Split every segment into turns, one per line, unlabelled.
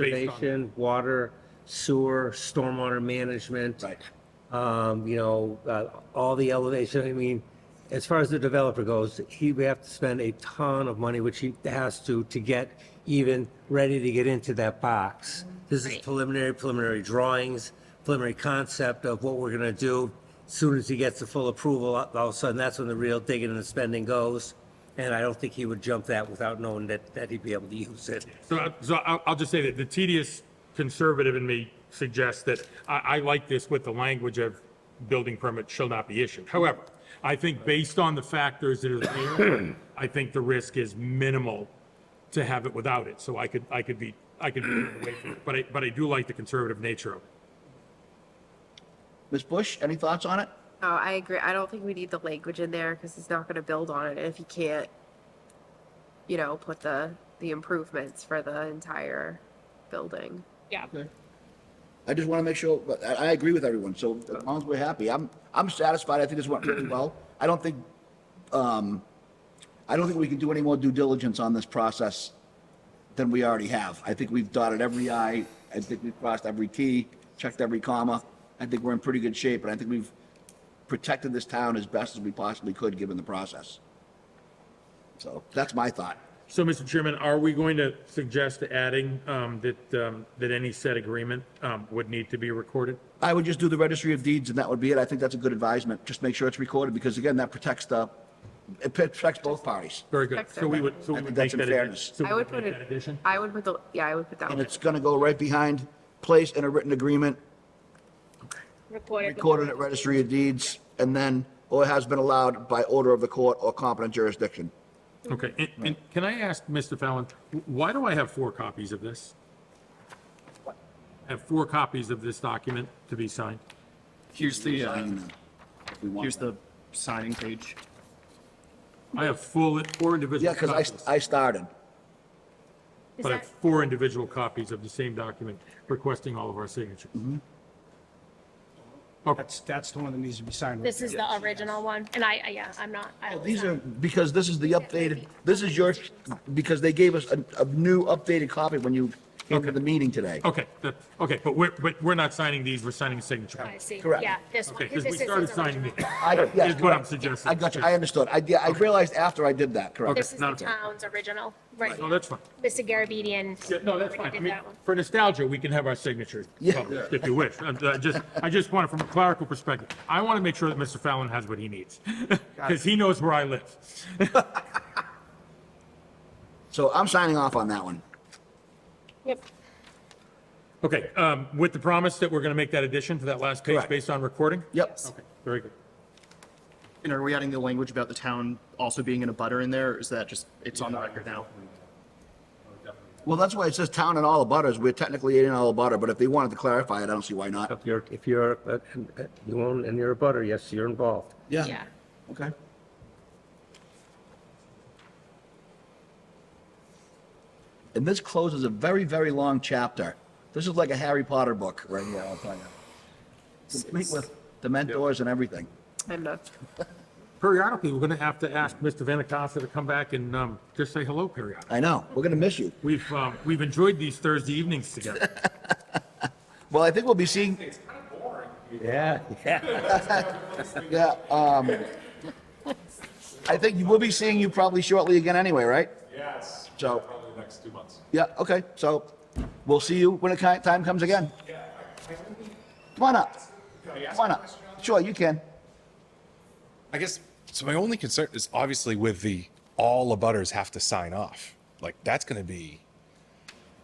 conservation, water, sewer, stormwater management.
Right.
Um, you know, uh, all the elevation, I mean, as far as the developer goes, he would have to spend a ton of money, which he has to, to get even ready to get into that box. This is
Right.
preliminary, preliminary drawings, preliminary concept of what we're gonna do. Soon as he gets the full approval, all all of a sudden, that's when the real digging and the spending goes. And I don't think he would jump that without knowing that, that he'd be able to use it.
So, I- so I'll, I'll just say that the tedious conservative in me suggests that I, I like this with the language of building permit shall not be issued. However, I think based on the factors that are there, I think the risk is minimal to have it without it. So I could, I could be, I could be away from it, but I, but I do like the conservative nature of it.
Ms. Bush, any thoughts on it?
No, I agree. I don't think we need the language in there because it's not going to build on it if you can't, you know, put the, the improvements for the entire building.
Yeah.
I just want to make sure, but I, I agree with everyone, so as long as we're happy, I'm, I'm satisfied, I think this went really well. I don't think, um, I don't think we can do any more due diligence on this process than we already have. I think we've dotted every i, I think we've crossed every t, checked every comma. I think we're in pretty good shape, and I think we've protected this town as best as we possibly could, given the process. So, that's my thought.
So, Mr. Chairman, are we going to suggest adding, um, that, um, that any said agreement, um, would need to be recorded?
I would just do the registry of deeds and that would be it. I think that's a good advisement. Just make sure it's recorded because again, that protects the, it protects both parties.
Very good. So we would, so
I
we
think
would make
that's in
that.
fairness.
addi- so we
I would
make
put it,
that Addition?
I would put the, yeah, I would put that
And
one.
it's gonna go right behind, place in a written agreement,
Recorded. with
recorded
the-
at registry of deeds, and then, or has been allowed by order of the court or competent jurisdiction.
Okay, and, and can I ask, Mr. Fallon, why do I have four copies of this? I Have four copies of this document to be signed?
Here's the, uh,
If we want
here's
that.
the signing page.
I have full, four
Yeah,
individual copies,
because I, I started.
Is
but I have
that,
four individual copies of the same document requesting all of our signatures.
Mm-hmm.
That's, that's the one that needs to be signed. right
this
there.
is the original one, and I, I- yeah, I'm not. I was
Oh, These
not-
are, because this is the updated, this is your, because they gave us a, a new updated copy when you came to the meeting today.
Okay, that, okay, but we're, but we're not signing these, we're signing a signature.
I see.
Correct.
Yeah, this one.
Okay, because
this
we
is his
started signing
original.
these.
I, yes,
Is what I'm
correct.
suggesting.
I got you, I understood. I, yeah, I realized after I did that, correct?
This is
not
the
a problem.
town's original, right?
No, that's fine.
Mr. Garabedian.
Yeah, no, that's
already
fine. I
did
mean,
that one.
for nostalgia, we can have our signatures
Yeah.
published if you wish. And I just, I just want it from a clerical perspective. I want to make sure that Mr. Fallon has what he needs because he knows where I live.
So I'm signing off on that one.
Yep.
Okay, um, with the promise that we're going to make that addition to that last page
Correct.
based on recording?
Yep.
Okay, very good.
And are we adding the language about the town also being in a butter in there, or is that just, it's on the record now?
Well, that's why it says town and all the butters. We're technically in all the butter, but if they wanted to clarify it, I don't see why not.
If you're, if you're, uh, uh, you own, and you're a butter, yes, you're involved.
Yeah.
Okay. And this closes a very, very long chapter. This is like a Harry Potter book right here, I'll tell you. Complete with the mentors and everything.
I'm not,
Periodically, we're going to have to ask Mr. Vanacosta to come back and, um, just say hello periodically.
I know, we're gonna miss you.
We've, um, we've enjoyed these Thursday evenings together.
Well, I think we'll be seeing,
Yeah, yeah.
yeah, um, I think we'll be seeing you probably shortly again anyway, right?
Yes.
So-
Probably the next two months.
Yeah, okay, so we'll see you when the ki- time comes again. Come on up. Come on up. Sure, you can.
I guess, so my only concern is obviously with the, all abutters have to sign off. Like, that's gonna be,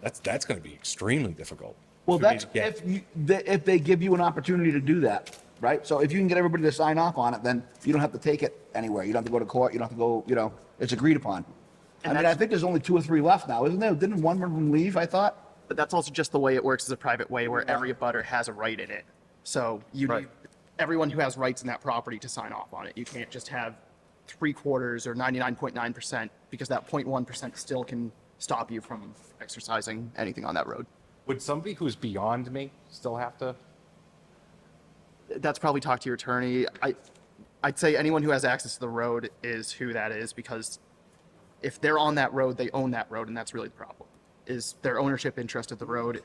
that's, that's gonna be extremely difficult.
Well,
for me
that's
to get.
if you, the- if they give you an opportunity to do that, right? So if you can get everybody to sign off on it, then you don't have to take it anywhere. You don't have to go to court, you don't have to go, you know, it's agreed upon. I
And
mean, I
that's-
think there's only two or three left now, isn't there? Didn't one of them leave, I thought?
But that's also just the way it works as a private way where every abutter has a right in it. So you need everyone who has rights in that property to sign off on it. You can't just have three quarters or 99.9% because that 0.1% still can stop you from exercising anything on that road.
Would somebody who's beyond me still have to?
that's probably talk to your attorney. I, I'd say anyone who has access to the road is who that is because if they're on that road, they own that road and that's really the problem. is their ownership interest of the road